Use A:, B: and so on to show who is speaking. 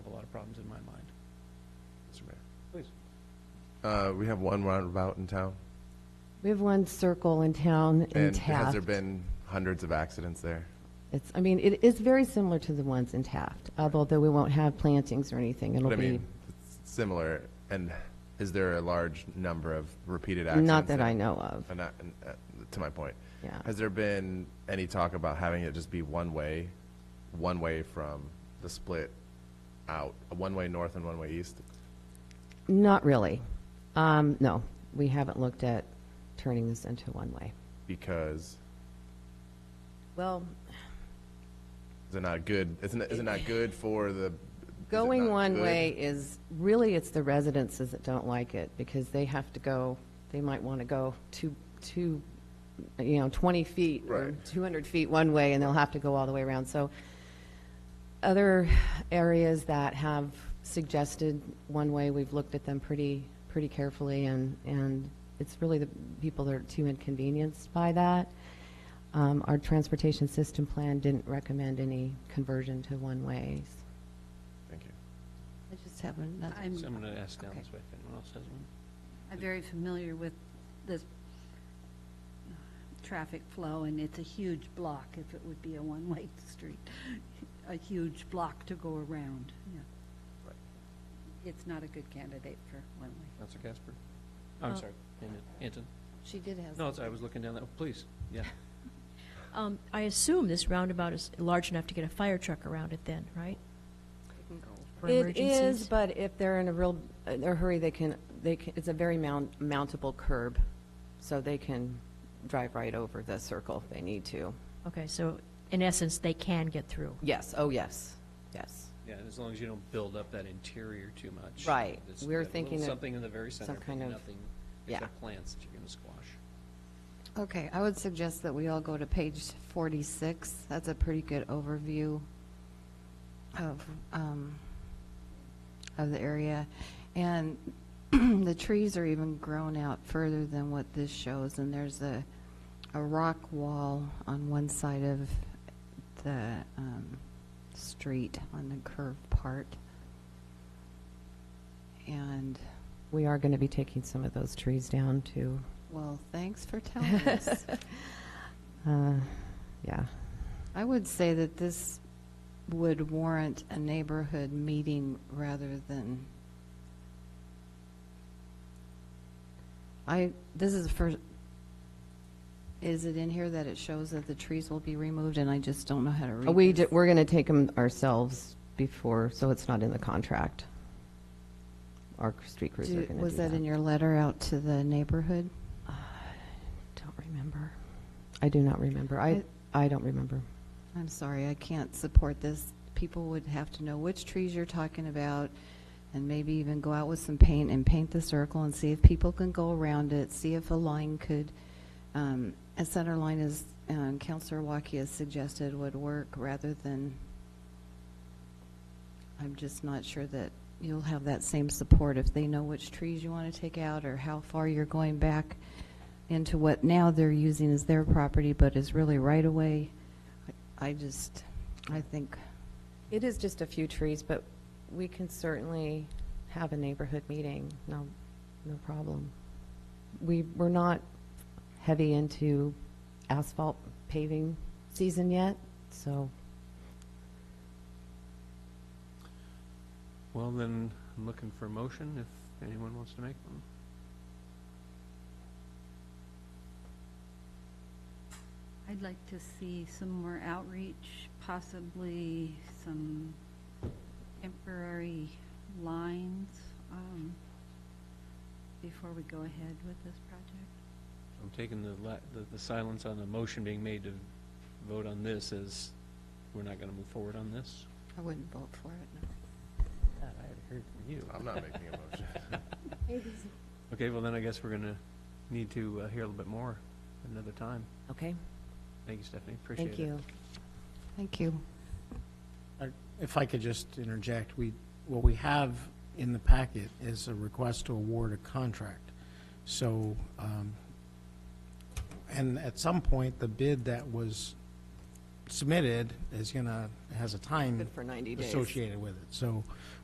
A: problems in my mind. Mr. Mayor. Please.
B: Uh, we have one roundabout in town.
C: We have one circle in town in
B: And has
C: Taft.
B: there been hundreds of accidents there?
C: It's, I mean, it is very similar to the ones in Taft, although we won't have plantings or anything. It'll
B: But I
C: be,
B: mean, it's similar, and is there a large number of repeated accidents?
C: not that I
B: there?
C: know of.
B: And not- and, uh, to my point.
C: Yeah.
B: Has there been any talk about having it just be one way, one way from the split out, one way north and one way east?
C: Not really. Um, no, we haven't looked at turning this into one-way.
B: Because
C: Well,
B: is it not good, isn't it, is it not good for the? is it
C: going
B: not
C: one
B: good?
C: way is, really, it's the residences that don't like it because they have to go, they might want to go two, two, you know, 20 feet or
B: Right.
C: 200 feet one way and they'll have to go all the way around. So other areas that have suggested one way, we've looked at them pretty, pretty carefully and, and it's really the people that are too inconvenienced by that. Um, our transportation system plan didn't recommend any conversion to one ways.
B: Thank you.
D: I just have another.
A: So
D: I'm,
A: I'm going to ask down
D: okay.
A: this way if anyone else has one.
D: I'm very familiar with this traffic flow, and it's a huge block if it would be a one-way street, a huge block to go around, yeah.
B: Right.
D: It's not a good candidate for one-way.
A: Counselor Casper? Oh, I'm
C: Oh.
E: Uh,
A: sorry, Anton- Anton.
E: She did have.
A: No, it's- I was looking down that, oh, please, yeah.
E: Um, I assume this roundabout is large enough to get a fire truck around it then, right? For
C: It is,
E: emergencies?
C: but if they're in a real, in a hurry, they can, they can, it's a very mount, mountable curb, so they can drive right over the circle if they need to.
E: Okay, so in essence, they can get through.
C: Yes, oh, yes, yes.
A: Yeah, and as long as you don't build up that interior too much.
C: Right.
A: Just
C: We're
A: that little
C: thinking of
A: Something in the very
C: some
A: center, but
C: kind of-
A: nothing
C: yeah.
A: except plants that you're going to squash.
F: Okay, I would suggest that we all go to page 46. That's a pretty good overview of, um, of the area. And the trees are even grown out further than what this shows, and there's a, a rock wall on one side of the um, street, on the curved part. And,
C: We are going to be taking some of those trees down to,
F: well, thanks for telling us.
C: uh, yeah.
F: I would say that this would warrant a neighborhood meeting rather than, I, this is the first, is it in here that it shows that the trees will be removed, and I just don't know how to read
C: Uh, We,
F: this?
C: ju- we're going to take them ourselves before, so it's not in the contract. Our street crews are
F: Do-
C: going to do that. Uh,
F: Was that in your letter out to the neighborhood?
C: Don't remember. I do not remember. I,
F: I-
C: I don't remember.
F: I'm sorry, I can't support this. People would have to know which trees you're talking about, and maybe even go out with some paint and paint the circle and see if people can go around it, see if a line could, um, a center line is, um, Counselor Waukee has suggested would work rather than, I'm just not sure that you'll have that same support if they know which trees you want to take out or how far you're going back into what now they're using as their property, but is really right away. I just, I think,
C: It is just a few trees, but we can certainly have a neighborhood meeting, no, no problem. We, we're not heavy into asphalt paving season yet, so
A: Well, then, I'm looking for a motion if anyone wants to make one.
D: I'd like to see some more outreach, possibly some temporary lines, um, before we go ahead with this project.
A: I'm taking the, la- the- the silence on the motion being made to vote on this as we're not going to move forward on this.
F: I wouldn't vote for it, no.
A: I already heard from you.
B: I'm not making a motion.
A: Okay, well then I guess we're going to need to uh, hear a little bit more another time.
C: Okay.
A: Thank you, Stephanie, appreciate it.
C: thank you.
F: Thank you.
G: If I could just interject, we, what we have in the packet is a request to award a contract. So, um, and at some point, the bid that was submitted is gonna, has a time
C: for 90
G: associated with it. So